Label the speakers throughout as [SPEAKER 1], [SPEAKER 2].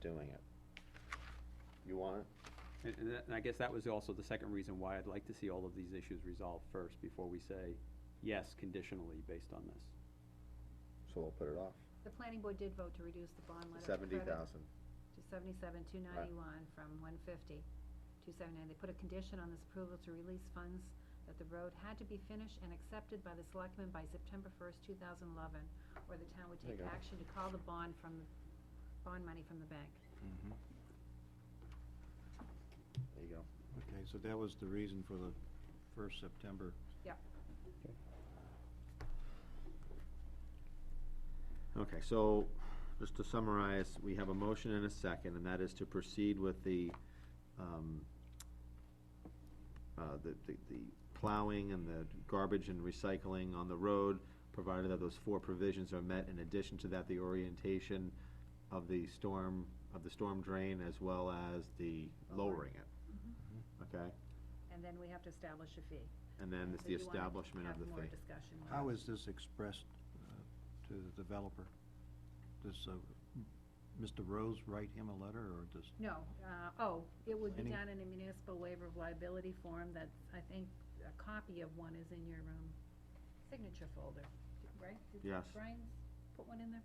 [SPEAKER 1] doing it. You want it?
[SPEAKER 2] And, and that- and I guess that was also the second reason why I'd like to see all of these issues resolved first before we say, yes, conditionally based on this.
[SPEAKER 1] So we'll put it off.
[SPEAKER 3] The planning board did vote to reduce the bond letter. of
[SPEAKER 1] Seventy
[SPEAKER 3] credit
[SPEAKER 1] thousand.
[SPEAKER 3] To seventy-seven, two ninety-one from one fifty, two seventy-nine. They put a condition on this approval to release funds that the road had to be finished and accepted by the selectmen by September first, two thousand eleven, or the town would
[SPEAKER 1] There you
[SPEAKER 3] take
[SPEAKER 1] go.
[SPEAKER 3] action to call the bond from, bond money from the bank.
[SPEAKER 1] There you go.
[SPEAKER 4] Okay, so that was the reason for the first September.
[SPEAKER 1] Okay, so just to summarize, we have a motion and a second, and that is to proceed with the, um, uh, the, the, the plowing and the garbage and recycling on the road, provided that those four provisions are met. In addition to that, the orientation of the storm, of the storm drain as well as the lowering
[SPEAKER 3] Mm-hmm.
[SPEAKER 1] it. Okay,
[SPEAKER 3] And then we have to establish a fee.
[SPEAKER 1] and then it's
[SPEAKER 3] So
[SPEAKER 1] the
[SPEAKER 3] you wanna
[SPEAKER 1] establishment of the
[SPEAKER 3] Have more
[SPEAKER 1] fee.
[SPEAKER 3] discussion. on
[SPEAKER 4] How
[SPEAKER 3] it.
[SPEAKER 4] is this expressed uh, to the developer? Does uh, m- Mr. Rose write him a letter, or does,
[SPEAKER 3] No, uh, oh, it would be done
[SPEAKER 4] Planning?
[SPEAKER 3] in a municipal waiver of liability form that's, I think, a copy of one is in your, um, signature folder, right? Did
[SPEAKER 1] Yes.
[SPEAKER 3] Brian put one in there?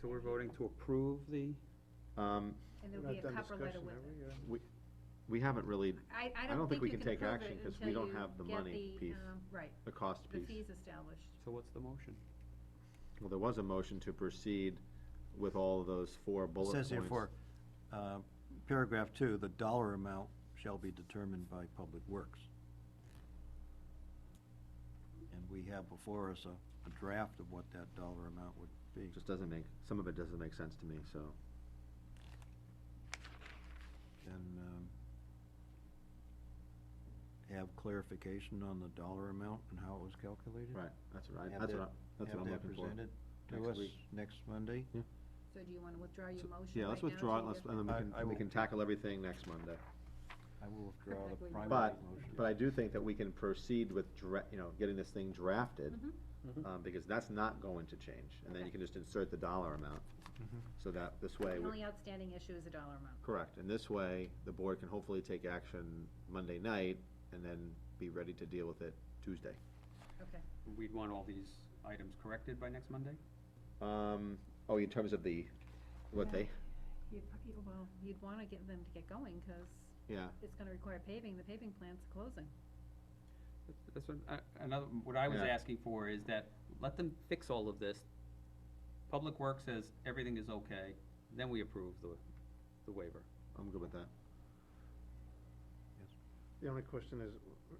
[SPEAKER 2] So we're voting to approve the,
[SPEAKER 1] Um,
[SPEAKER 3] And there'll be a cover letter with it.
[SPEAKER 1] we haven't really,
[SPEAKER 3] I, I
[SPEAKER 1] don't
[SPEAKER 3] don't
[SPEAKER 1] think
[SPEAKER 3] think
[SPEAKER 1] we
[SPEAKER 3] you
[SPEAKER 1] can
[SPEAKER 3] can
[SPEAKER 1] take
[SPEAKER 3] approve
[SPEAKER 1] action
[SPEAKER 3] it
[SPEAKER 1] 'cause we
[SPEAKER 3] until
[SPEAKER 1] don't
[SPEAKER 3] you
[SPEAKER 1] have the
[SPEAKER 3] get
[SPEAKER 1] money
[SPEAKER 3] the,
[SPEAKER 1] piece.
[SPEAKER 3] um, Right,
[SPEAKER 1] the cost
[SPEAKER 3] the
[SPEAKER 1] piece.
[SPEAKER 3] fees established.
[SPEAKER 2] so what's the motion?
[SPEAKER 1] Well, there was a motion to proceed with all of those four
[SPEAKER 4] it
[SPEAKER 1] bullet points.
[SPEAKER 4] says here for uh, paragraph two, the dollar amount shall be determined by Public Works. And we have before us a, a draft of what that dollar amount would be.
[SPEAKER 1] Just doesn't make, some of it doesn't make sense to me, so.
[SPEAKER 4] And um, have clarification on the dollar amount and how it was calculated?
[SPEAKER 1] Right, that's what I,
[SPEAKER 4] Have
[SPEAKER 1] that's
[SPEAKER 4] that-
[SPEAKER 1] what I, that's what I'm looking for.
[SPEAKER 4] Have that presented
[SPEAKER 1] next
[SPEAKER 4] to us
[SPEAKER 1] week.
[SPEAKER 4] next Monday?
[SPEAKER 3] So do you wanna withdraw your
[SPEAKER 1] So-
[SPEAKER 3] motion right now?
[SPEAKER 1] Yeah, let's withdraw it,
[SPEAKER 3] till
[SPEAKER 1] let's,
[SPEAKER 3] you-
[SPEAKER 1] and then we
[SPEAKER 4] I-
[SPEAKER 1] can,
[SPEAKER 4] I
[SPEAKER 1] we
[SPEAKER 4] will.
[SPEAKER 1] can tackle everything next Monday.
[SPEAKER 4] I will withdraw
[SPEAKER 3] Looks like
[SPEAKER 4] the
[SPEAKER 3] we
[SPEAKER 4] primary
[SPEAKER 1] But,
[SPEAKER 4] motion.
[SPEAKER 1] but I do think that we can proceed with dra, you know, getting this thing drafted,
[SPEAKER 3] Mhm.
[SPEAKER 4] Mm-hmm.
[SPEAKER 1] um, because that's not going to change. And then you
[SPEAKER 3] Okay.
[SPEAKER 1] can just insert the dollar amount,
[SPEAKER 4] Mm-hmm.
[SPEAKER 1] so that, this way,
[SPEAKER 3] The
[SPEAKER 1] we-
[SPEAKER 3] only outstanding issue is the dollar amount.
[SPEAKER 1] correct. And this way, the board can hopefully take action Monday night, and then be ready to deal with it Tuesday.
[SPEAKER 3] Okay,
[SPEAKER 2] We'd want all these items corrected by next Monday?
[SPEAKER 1] Um, oh, in terms of the, what
[SPEAKER 3] Yeah.
[SPEAKER 1] they,
[SPEAKER 3] you'd, prob- well, you'd wanna get them to get going, cause
[SPEAKER 1] yeah,
[SPEAKER 3] it's gonna require paving, the paving plant's closing.
[SPEAKER 2] That's what, uh, another, what I was
[SPEAKER 1] Yeah.
[SPEAKER 2] asking for is that, let them fix all of this. Public Works says everything is okay, then we approve the, the waiver.
[SPEAKER 1] I'm good with that.
[SPEAKER 5] The only question is,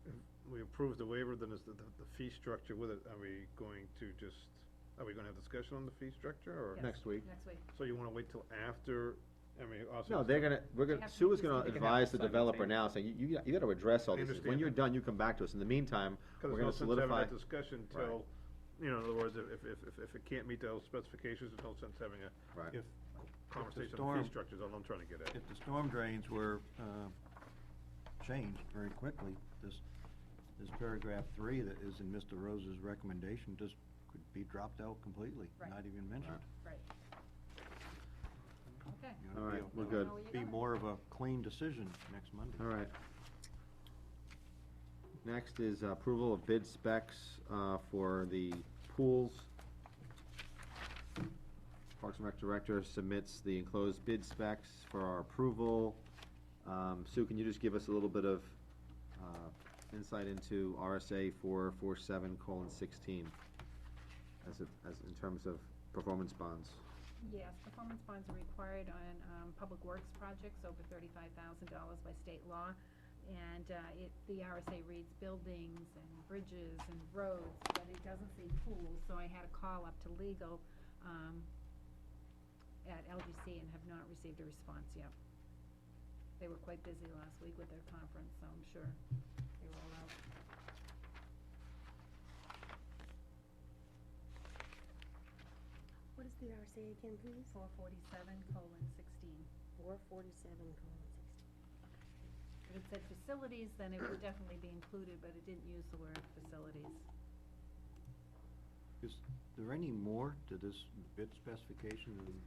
[SPEAKER 5] if we approve the waiver, then is the, the the fee structure with it, are we going to just, are we gonna have discussion on the fee structure, or?
[SPEAKER 3] Yes.
[SPEAKER 1] Next week.
[SPEAKER 3] Next week.
[SPEAKER 5] So you wanna wait till after, I mean, also.
[SPEAKER 1] No, they're gonna, we're
[SPEAKER 3] They
[SPEAKER 1] gonna,
[SPEAKER 3] have to
[SPEAKER 1] Sue
[SPEAKER 3] do
[SPEAKER 1] is
[SPEAKER 3] this
[SPEAKER 1] gonna
[SPEAKER 2] They can have
[SPEAKER 1] advise the
[SPEAKER 2] this
[SPEAKER 1] developer now, saying, you, you, you gotta address all
[SPEAKER 5] I
[SPEAKER 1] these. things. When
[SPEAKER 5] understand
[SPEAKER 1] you're
[SPEAKER 5] that.
[SPEAKER 1] done, you come back to us. In the meantime,
[SPEAKER 5] Cause
[SPEAKER 1] we're
[SPEAKER 5] there's no
[SPEAKER 1] gonna
[SPEAKER 5] sense having
[SPEAKER 1] solidify.
[SPEAKER 5] that discussion
[SPEAKER 1] Right.
[SPEAKER 5] till, you know, in other words, if, if, if, if it can't meet those specifications, there's no sense having a
[SPEAKER 1] Right.
[SPEAKER 4] If,
[SPEAKER 5] conversation on the
[SPEAKER 4] storm-
[SPEAKER 5] fee structures, all I'm trying to get at.
[SPEAKER 4] if the storm drains were uh, changed very quickly, this, this paragraph three that is in Mr. Rose's recommendation just could be dropped out completely,
[SPEAKER 3] Right.
[SPEAKER 4] not even mentioned.
[SPEAKER 3] Right. Okay.
[SPEAKER 4] You know,
[SPEAKER 1] All right,
[SPEAKER 4] it'll-
[SPEAKER 1] we're
[SPEAKER 4] it'll
[SPEAKER 1] good.
[SPEAKER 3] How are you
[SPEAKER 4] Be
[SPEAKER 3] going?
[SPEAKER 4] more of a clean decision next Monday.
[SPEAKER 1] All right. Next is uh, approval of bid specs, uh, for the pools. Parks and Rec Director submits the enclosed bid specs for our approval. Um, Sue, can you just give us a little bit of, uh, insight into RSA four, four, seven, colon, sixteen? As it, as in terms of performance bonds.
[SPEAKER 3] Yes, performance bonds are required on, um, public works projects over thirty-five thousand dollars by state law. And, uh, it, the RSA reads buildings and bridges and roads, but it doesn't say pools, so I had a call up to legal, um, at LGC and have not received a response yet. They were quite busy last week with their conference, so I'm sure they were all out.
[SPEAKER 6] What is the RSA again, please?
[SPEAKER 3] Four forty-seven colon sixteen.
[SPEAKER 6] Four forty-seven colon sixteen.
[SPEAKER 3] If it said facilities, then it would definitely be included, but it didn't use the word facilities.
[SPEAKER 4] Is there any more to this bid specification than